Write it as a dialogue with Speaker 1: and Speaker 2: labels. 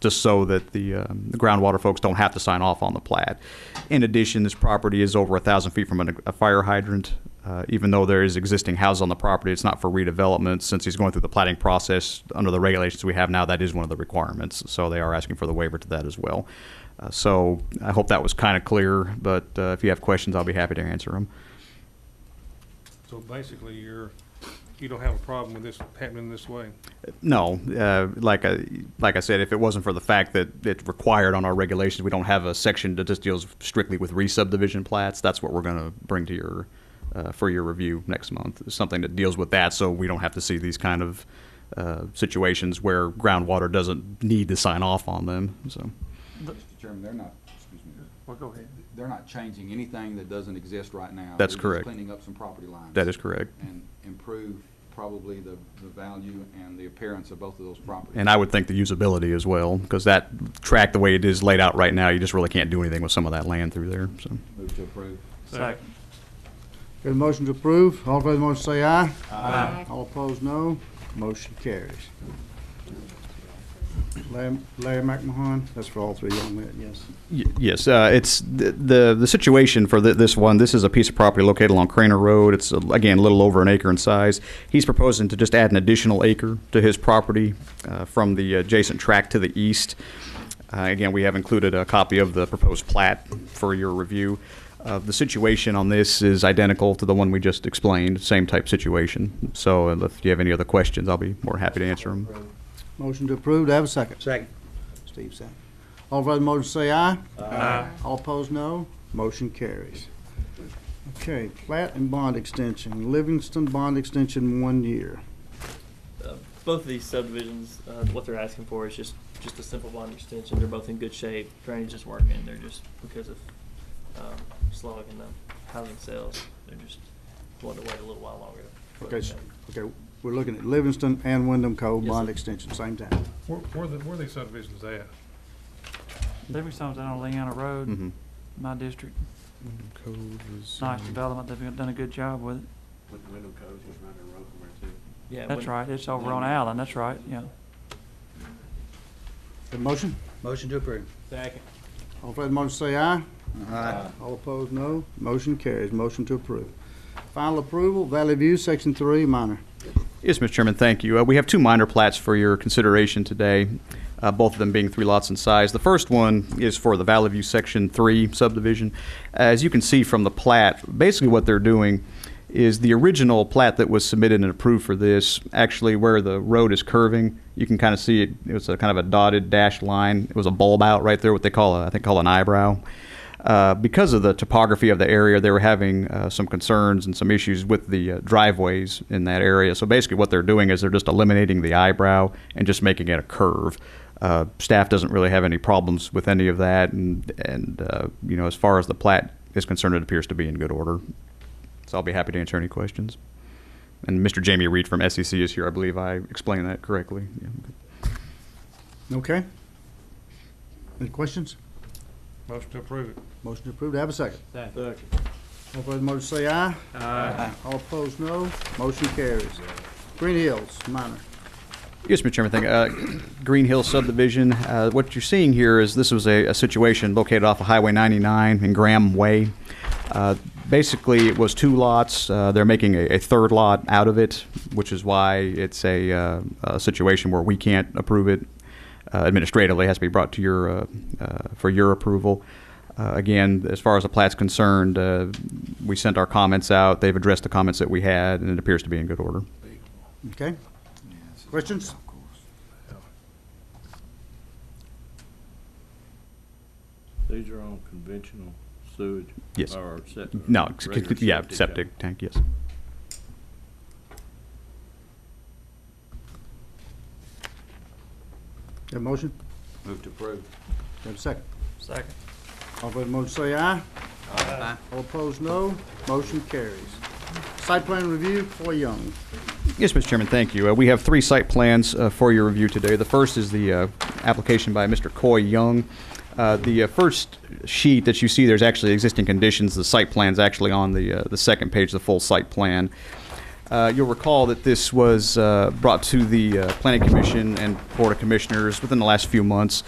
Speaker 1: just so that the, um, the groundwater folks don't have to sign off on the plat. In addition, this property is over a thousand feet from an- a fire hydrant. Uh, Even though there is existing house on the property, it's not for redevelopment. Since he's going through the plating process, under the regulations we have now, that is one of the requirements. So they are asking for the waiver to that as well. Uh, So I hope that was kind of clear, but uh, if you have questions, I'll be happy to answer them.
Speaker 2: So basically, you're, you don't have a problem with this happening this way?
Speaker 1: No, uh, like I, like I said, if it wasn't for the fact that it's required on our regulations, we don't have a section that just deals strictly with re-subdivision plats. That's what we're going to bring to your, uh, for your review next month, is something that deals with that, so we don't have to see these kind of uh, situations where groundwater doesn't need to sign off on them, so.
Speaker 3: Mr. Chairman, they're not, excuse me,
Speaker 2: Well, go ahead.
Speaker 3: they're not changing anything that doesn't exist right now.
Speaker 1: That's
Speaker 3: They're just
Speaker 1: correct.
Speaker 3: Cleaning up some property lines.
Speaker 1: That is correct.
Speaker 3: And improve probably the, the value and the appearance of both of those properties.
Speaker 1: And I would think the usability as well, because that track, the way it is laid out right now, you just really can't do anything with some of that land through there, so.
Speaker 3: Move to approve.
Speaker 2: Second.
Speaker 4: Got a motion to approve. All in favor of the motion say aye. Aye. All opposed, no. Motion carries. Larry Larry McMahon, that's for all three young men, yes.
Speaker 1: Y- Yes, uh, it's the, the the situation for thi- this one. This is a piece of property located along Craner Road. It's uh, again a little over an acre in size. He's proposing to just add an additional acre to his property uh, from the adjacent tract to the east. Uh, again, we have included a copy of the proposed plat for your review. Uh, the situation on this is identical to the one we just explained. Same type situation. So, uh, if you have any other questions, I'll be more happy to answer them.
Speaker 4: Motion to approve, do I have a second? Second. Steve second. All in favor of the motion say aye. Aye. All opposed, no. Motion carries. Okay, plat and bond extension, Livingston bond extension, one year.
Speaker 5: Uh, both of these subdivisions, uh, what they're asking for is just, just a simple bond extension. They're both in good shape. Drainage is working. They're just, because of, um, slowing in the housing sales, they're just wanting to wait a little while longer. to put
Speaker 4: Okay,
Speaker 5: it
Speaker 4: s-
Speaker 5: in.
Speaker 4: okay, we're looking at Livingston and Wyndham Cove
Speaker 5: Yes,
Speaker 4: bond
Speaker 5: sir.
Speaker 4: extension, same time.
Speaker 2: Where, where the- where are these subdivisions at?
Speaker 6: Livingston's down on Leanna Road,
Speaker 1: Mhm.
Speaker 6: my district. Nice development. They've done a good job with it.
Speaker 5: Yeah.
Speaker 6: That's
Speaker 5: when-
Speaker 6: right. It's over on Allen. That's right. Yeah.
Speaker 4: Have a motion?
Speaker 7: Motion to approve.
Speaker 5: Second.
Speaker 4: All in favor of the motion say aye. All opposed, no. Motion carries. Motion to approve. Final approval, Valley View, Section 3, minor.
Speaker 1: Yes, Mr. Chairman, thank you. Uh, We have two minor plats for your consideration today, uh, both of them being three lots in size. The first one is for the Valley View Section 3 subdivision. As you can see from the plat, basically what they're doing is the original plat that was submitted and approved for this, actually where the road is curving, you can kind of see it, it was a kind of a dotted dashed line. It was a bulb out right there, what they call, a- I think call an eyebrow. Uh, because of the topography of the area, they were having uh, some concerns and some issues with the uh, driveways in that area. So basically, what they're doing is they're just eliminating the eyebrow and just making it a curve. Uh, staff doesn't really have any problems with any of that, and and uh, you know, as far as the plat is concerned, it appears to be in good order. So I'll be happy to answer any questions. And Mr. Jamie Reed from SEC is here. I believe I explained that correctly. Yeah, okay.
Speaker 4: Okay? Any questions?
Speaker 2: Motion to approve it.
Speaker 4: Motion to approve. Do I have a second? All in favor of the motion say aye. Aye. All opposed, no. Motion carries. Green Hills, minor.
Speaker 1: Yes, Mr. Chairman, thank you. Uh, Green Hill subdivision, uh, what you're seeing here is this was a, a situation located off of Highway 99 in Graham Way. Uh, Basically, it was two lots. Uh, They're making a, a third lot out of it, which is why it's a, uh, a situation where we can't approve it uh, administratively. It has to be brought to your, uh, uh, for your approval. Uh, Again, as far as the plat's concerned, uh, we sent our comments out. They've addressed the comments that we had, and it appears to be in good order.
Speaker 4: Okay? Questions?
Speaker 8: These are on conventional sewage?
Speaker 1: Yes.
Speaker 8: Or sep-
Speaker 1: No,
Speaker 8: or
Speaker 1: ex-
Speaker 8: regular
Speaker 1: yeah,
Speaker 8: tank?
Speaker 1: septic tank, yes.
Speaker 4: Have a motion?
Speaker 3: Move to approve.
Speaker 4: Do I Have a second?
Speaker 5: Second.
Speaker 4: All in favor of the motion say aye.
Speaker 3: Aye.
Speaker 4: All opposed, no. Motion carries. Site plan review for Young.
Speaker 1: Yes, Mr. Chairman, thank you. Uh, We have three site plans uh, for your review today. The first is the uh, application by Mr. Coy Young. Uh, The uh, first sheet that you see, there's actually existing conditions. The site plan's actually on the, uh, the second page, the full site plan. Uh, You'll recall that this was uh, brought to the uh, Planning Commission and Board of Commissioners within the last few months.